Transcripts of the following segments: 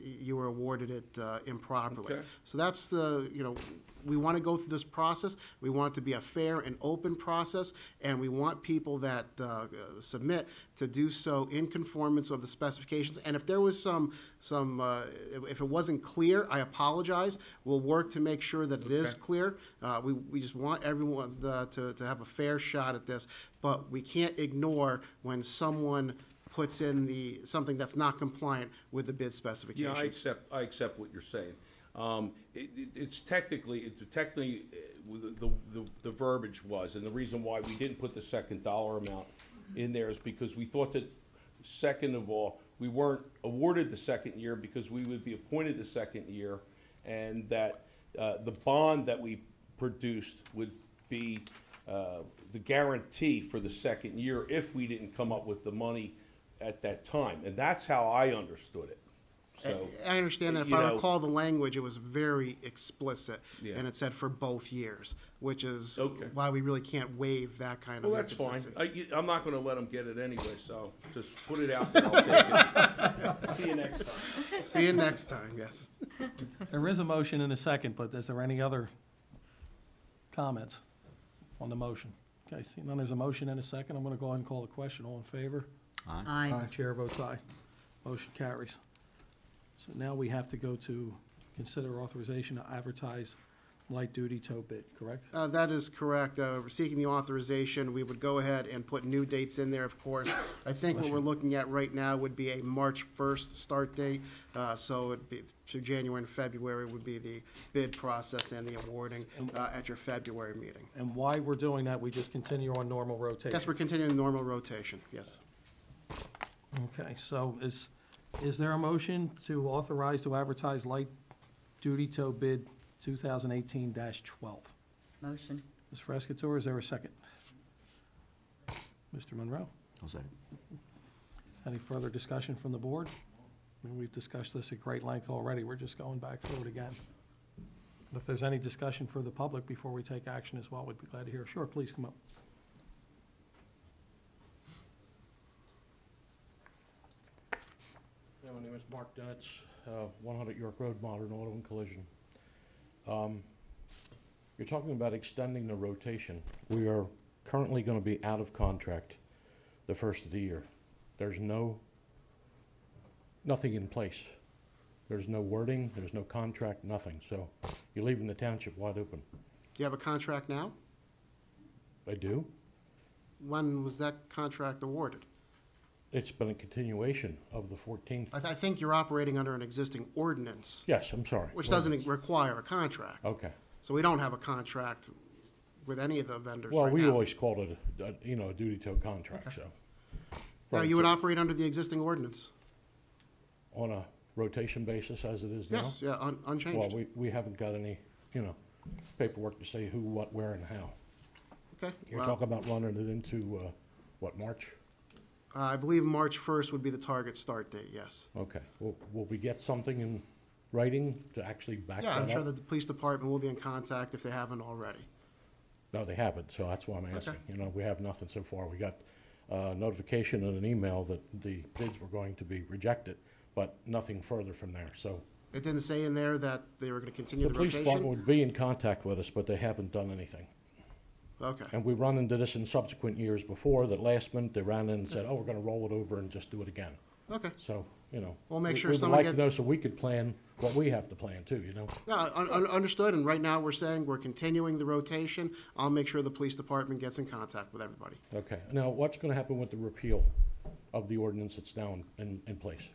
you were awarded it uh, improperly. Okay. So that's the, you know, we want to go through this process. We want it to be a fair and open process, and we want people that uh, submit to do so in conformance of the specifications. And if there was some, some, uh, if it wasn't clear, I apologize. We'll work to make sure that it is Okay. clear. Uh, We, we just want everyone uh, to, to have a fair shot at this, but we can't ignore when someone puts in the, something that's not compliant with the bid Yeah, specifications. I accept, I accept what you're saying. Um, it, it, it's technically, it's technically, uh, with the, the, the verbiage was, and the reason why we didn't put the second dollar amount in there is because we thought that, second of all, we weren't awarded the second year because we would be appointed the second year, and that, uh, the bond that we produced would be, uh, the guarantee for the second year if we didn't come up with the money at that time, and that's how I understood it, so. I understand that. If you I know- recall the language, it was very explicit, Yeah. and it said for both years, which is Okay. why we really can't waive that kind of. Well, that's fine. inconsistency. I, you- I'm not gonna let them get it anyway, so just put it out there, I'll take it. See you next time. See you next time, yes. There is a motion and a second, but is there any other comments on the motion? Okay, seeing none, there's a motion and a second. I'm going to go ahead and call the question. All in favor? Aye. Chair votes aye. Motion carries. So now we have to go to consider authorization to advertise light-duty tow bid, correct? Uh, That is correct. Uh, We're seeking the authorization. We would go ahead and put new dates in there, of course. I think what we're looking at right now would be a March 1st start date, uh, so it'd be through January and February would be the bid process and the awarding uh, at your February meeting. And why we're doing that, we just continue on normal rotation? Yes, we're continuing normal rotation, yes. Okay, so is, is there a motion to authorize to advertise light-duty tow bid 2018-12? Motion. Ms. Frescatore, is there a second? Mr. Monroe, I'll second. any further discussion from the board? I mean, We've discussed this at great length already, we're just going back through it again. But If there's any discussion for the public before we take action as well, we'd be glad to hear. Sure, please come up. Yeah, my name is Mark Dennett's, uh, 100 York Road, Modern Auto and Collision. Um, You're talking about extending the rotation. We are currently going to be out of contract the first of the year. There's no, nothing in place. There's no wording, there's no contract, nothing. So you're leaving the township wide open. Do you have a contract now? I do. When was that contract awarded? It's been a continuation of the 14th. I, th- I think you're operating under an existing ordinance, Yes, I'm sorry. which doesn't require a contract. Okay. So we don't have a contract with any of the vendors Well, right we now. always called it, a- a- you know, a duty tow contract, so. Now, Right, you would so operate under the existing ordinance? On a rotation basis as it is now? Yes, yeah, un- Well, unchanged. we, we haven't got any, you know, paperwork to say who, what, where, and how. Okay. You're well, talking about running it into, uh, what, March? uh, I believe March 1st would be the target start date, yes. Okay. Will, will we get something in writing to actually back that Yeah, up? I'm sure that the police department will be in contact if they haven't already. No, they haven't, so that's why I'm asking. You know, we have nothing so far. We got uh, notification and an email that the bids were going to be rejected, but nothing further from there, so. It didn't say in there that they were going to continue The the police department rotation? would be in contact with us, but they haven't done anything. Okay, And we run into this in subsequent years before, that last minute, they ran in and said, oh, we're gonna roll it over and just do it again. okay. So, you know. We'll make we- sure we would someone like to gets- know so we could plan what we have to plan too, you know? No, un- un- understood, and right now, we're saying we're continuing the rotation. I'll make sure the police department gets in contact with everybody. Okay, now what's gonna happen with the repeal of the ordinance that's now in- in, in place?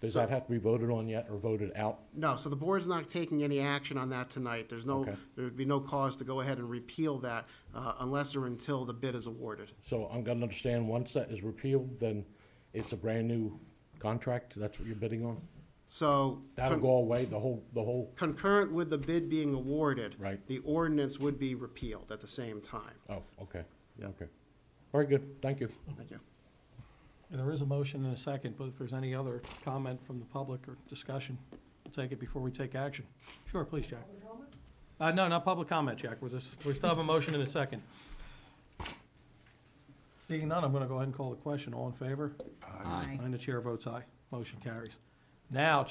Does So- that have to be voted on yet or voted out? No, so the board's not taking any action on that tonight. There's no, Okay. there would be no cause to go ahead and repeal that uh, unless or until the bid is awarded. So I'm gonna understand, once that is repealed, then it's a brand-new contract, that's what you're bidding on? So That'll con- go away, the whole, the whole, concurrent with the bid being awarded, Right. the ordinance would be repealed at the same time. oh, okay, Yeah. okay. Very good, thank you. Thank you. There is a motion and a second, but if there's any other comment from the public or discussion, we'll take it before we take action. Sure, please, Jack. Uh, no, not public comment, Jack. We're just, we still have a motion and a second. Seeing none, I'm gonna go ahead and call the question. All in favor? Aye. And the chair votes aye. Motion carries. Now,